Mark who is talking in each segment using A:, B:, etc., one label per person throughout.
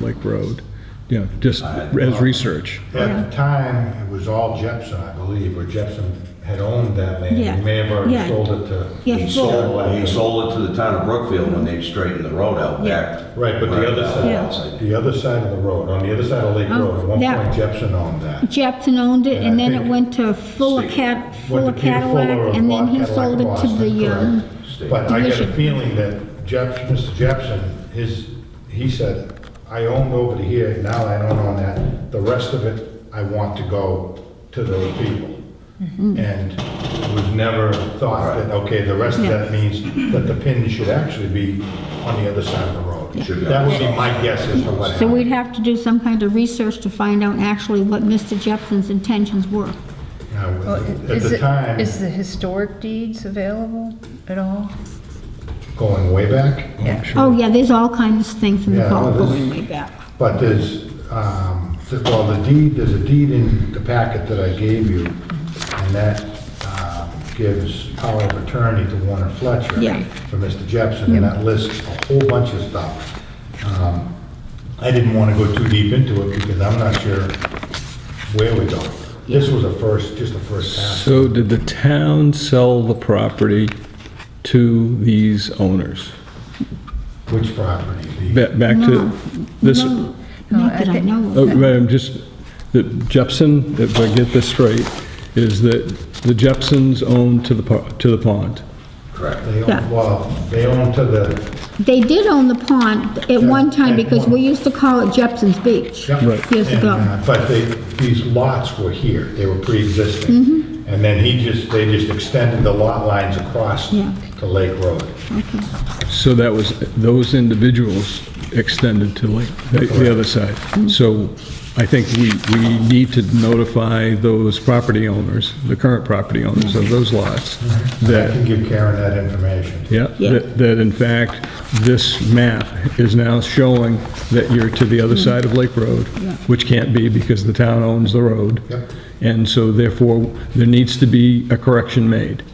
A: Lake Road. Yeah, just as research.
B: At the time, it was all Jepson, I believe, or Jepson had owned that land.
C: Yeah.
B: He may have already
C: Yeah.
B: sold it to.
C: Yeah,
B: he
C: he
B: sold
D: Sold,
B: it.
D: he sold it to the town of Brookfield when they straightened the road out back.
B: Right, but the other side,
C: Yeah.
B: the other side of the road, on the other side of Lake
C: Oh,
B: Road, at one
C: that-
B: point Jepson owned that.
C: Jepson owned it,
B: And
C: and
B: I
C: then it
B: think-
C: went to Fuller Cat, Fuller
B: Went to Peter Fuller
C: Cadillac,
B: of
C: and then he
B: Cadillac
C: sold it to
B: Boston,
C: the, um,
B: correct. But I get a
C: division.
B: feeling that Jepson, Mr. Jepson, his, he said, I owned over to here, now I don't own that. The rest of it, I want to go to those people.
C: Mm-hmm.
B: And it was never thought that, okay, the rest of
C: Yeah.
B: that means that the pin should actually be on the other side of the road.
D: Should be.
B: That would be my guess as to what
C: so
B: happened.
C: we'd have to do some kind of research to find out actually what Mr. Jepson's intentions were.
B: Now,
C: Oh,
E: Well,
B: At
E: is
B: the
E: it-
B: time,
E: Is the historic deeds available at all?
B: going way back,
E: Yeah.
C: Oh, yeah, there's all kinds of things in the Oh,
B: Yeah,
C: call
B: well, this-
C: going way back.
B: But there's, um, th- well, the deed, there's a deed in the packet that I gave you, and that um, gives power of attorney to Warner Fletcher
C: Yeah.
B: for Mr. Jepson, and that lists a whole bunch of stuff. Um, I didn't want to go too deep into it because I'm not sure where we go. This was a first, just a first pass.
A: So did the town sell the property to these owners?
B: Which property? The-
A: Ba- Back to
C: No,
A: this,
C: No,
E: No,
C: Not
E: I
C: that I
E: think-
C: know of.
A: Oh, right, I'm just, the Jepson, if I get this straight, is that the Jepsons own to the, po- to the pond.
D: Correct.
B: They
C: Yeah.
B: own, well, they own to the,
C: They did own the pond at one time, because we used to call it Jepson's Beach.
B: Yep.
A: Right.
C: Years
B: And,
C: ago.
B: uh, But they, these lots were here, they were pre-existing.
E: Mm-hmm.
B: And then he just, they just extended the lot lines across
C: Yeah.
B: to Lake Road.
A: So that was, those individuals extended to like, the- the other side. So I think we, we need to notify those property owners, the current property owners of those lots,
B: I
A: that,
B: can give Karen that information.
A: yeah,
C: Yeah.
A: that, that in fact, this map is now showing that you're to the other side of Lake Road, which can't be because the town owns the road.
B: Yep.
A: And so therefore, there needs to be a correction made.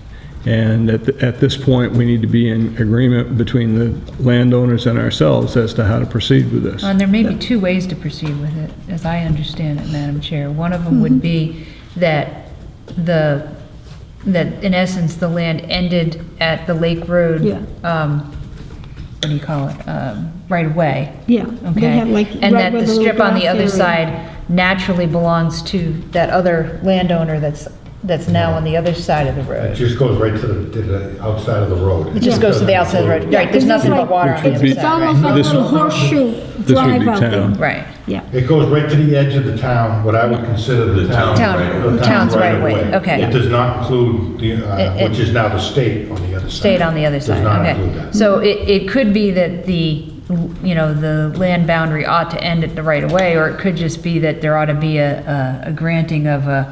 A: And at, th- at this point, we need to be in agreement between the landowners and ourselves as to how to proceed with this.
E: And Uh, there may be two ways to proceed with it, as I understand it, Madam Chair. One of them
C: Mm-hmm.
E: would be that the, that in essence, the land ended at the Lake Road.
C: Yeah.
E: um, What do you call it? Um, Right away.
C: Yeah, they
E: Okay.
C: have, like, right
E: And that
C: where
E: the
C: the little
E: strip on the
C: grass
E: other
C: area.
E: side naturally belongs to that other landowner that's, that's now on the other side of the
B: It
E: road.
B: just goes right to the, to the outside of the road.
E: It just goes to the outside of the road. Right, there's
C: Because it's
E: nothing but
C: like-
E: water on
A: Which
E: the
A: would
E: other
A: be-
C: It's almost
E: side.
C: like a
A: This
C: little
A: would-
C: horseshoe
A: This would
C: drive
A: be
C: out
A: town.
C: there.
E: Right.
C: Yeah,
B: It goes right to the edge of the town, what I would consider the
D: The
B: town.
D: town
B: right-
D: right-
B: the
E: town's right away,
B: right-of-way.
E: okay.
B: It does not include the, uh,
E: It- it-
B: which is now the state on the other side.
E: Stayed on the other side,
B: Does not include
E: okay.
B: that.
E: So it, it could be that the, you know, the land boundary ought to end at the right of way, or it could just be that there ought to be a, a- a granting of a,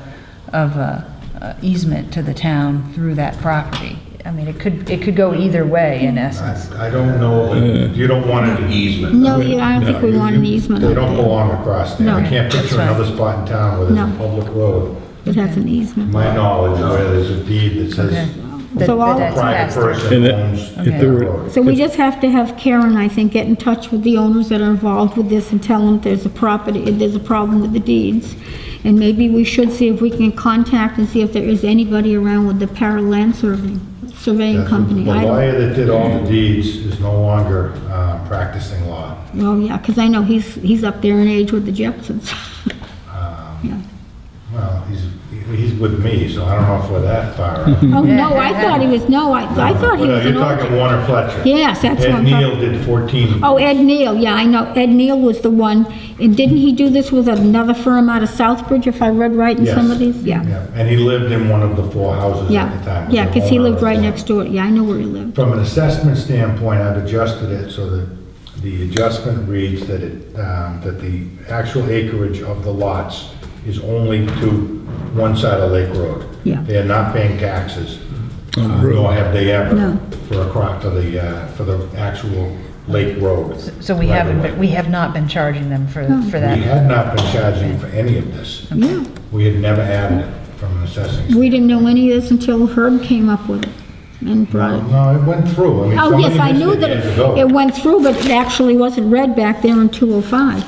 E: of a uh, easement to the town through that property. I mean, it could, it could go either way in essence.
B: I I don't know, if- you don't want it to
D: Easement.
C: no, yeah, I don't think we want an easement
B: They
C: up
B: don't
C: there.
B: belong across there. I
C: No.
B: can't picture
E: That's fine.
B: another spot in town where there's a
C: No.
B: public road,
C: It has an easement.
B: my knowledge, where there's a deed that
E: Okay.
B: says
E: That-
C: So all-
E: that
B: a
E: that's
B: private
E: passed through.
B: person
A: And that-
B: owns
A: if
B: that
A: there were-
B: road.
C: So we just have to have Karen, I think, get in touch with the owners that are involved with this and tell them there's a property, there's a problem with the deeds. And maybe we should see if we can contact and see if there is anybody around with the Para Land Surveying, Surveying
B: That's-
C: Company.
B: The
C: I don't-
B: lawyer that did all the deeds is no longer uh, practicing law.
C: Oh, yeah, because I know he's, he's up there in age with the Jepsons. Yeah.
B: Well, he's, he's with me, so I don't know if we're that far out.
C: Oh, no, I thought he was, no, I, I thought he
B: Well, no,
C: was an
B: You're
C: old...
B: talking Warner Fletcher.
C: Yes, that's what
B: Ed
C: I'm talking...
B: Neal did 14.
C: Oh, Ed Neal, yeah, I know, Ed Neal was the one, and didn't he do this with another firm out of Southbridge, if I read right in some of
B: Yes.
C: these? Yeah,
B: Yeah, And he lived in one of the four houses at the
C: yeah,
B: time.
C: yeah, because he
B: The owner
C: lived
B: of
C: right
B: the-
C: next door, yeah, I know where he lived.
B: From an assessment standpoint, I've adjusted it so that the adjustment reads that it, um, that the actual acreage of the lots is only to one side of Lake Road.
C: Yeah.
B: They are not paying taxes,
A: On the
B: uh,
A: road.
B: nor have they ever,
C: No.
B: for a crop, for the, uh, for the actual Lake Road.
E: So we
B: right of
E: haven't,
B: way.
E: been- we have not been charging them for, for
B: We
E: that.
B: had not been charging for any of this.
C: Yeah,
B: We had never added it from an assessing.
C: we didn't know any of this until Herb came up with it. and brought it.
B: No, it went through. mean,
C: Oh, yes,
B: somebody
C: I
B: missed
C: knew that
B: years ago.
C: it- it went through, but it actually wasn't read back there oh in 205.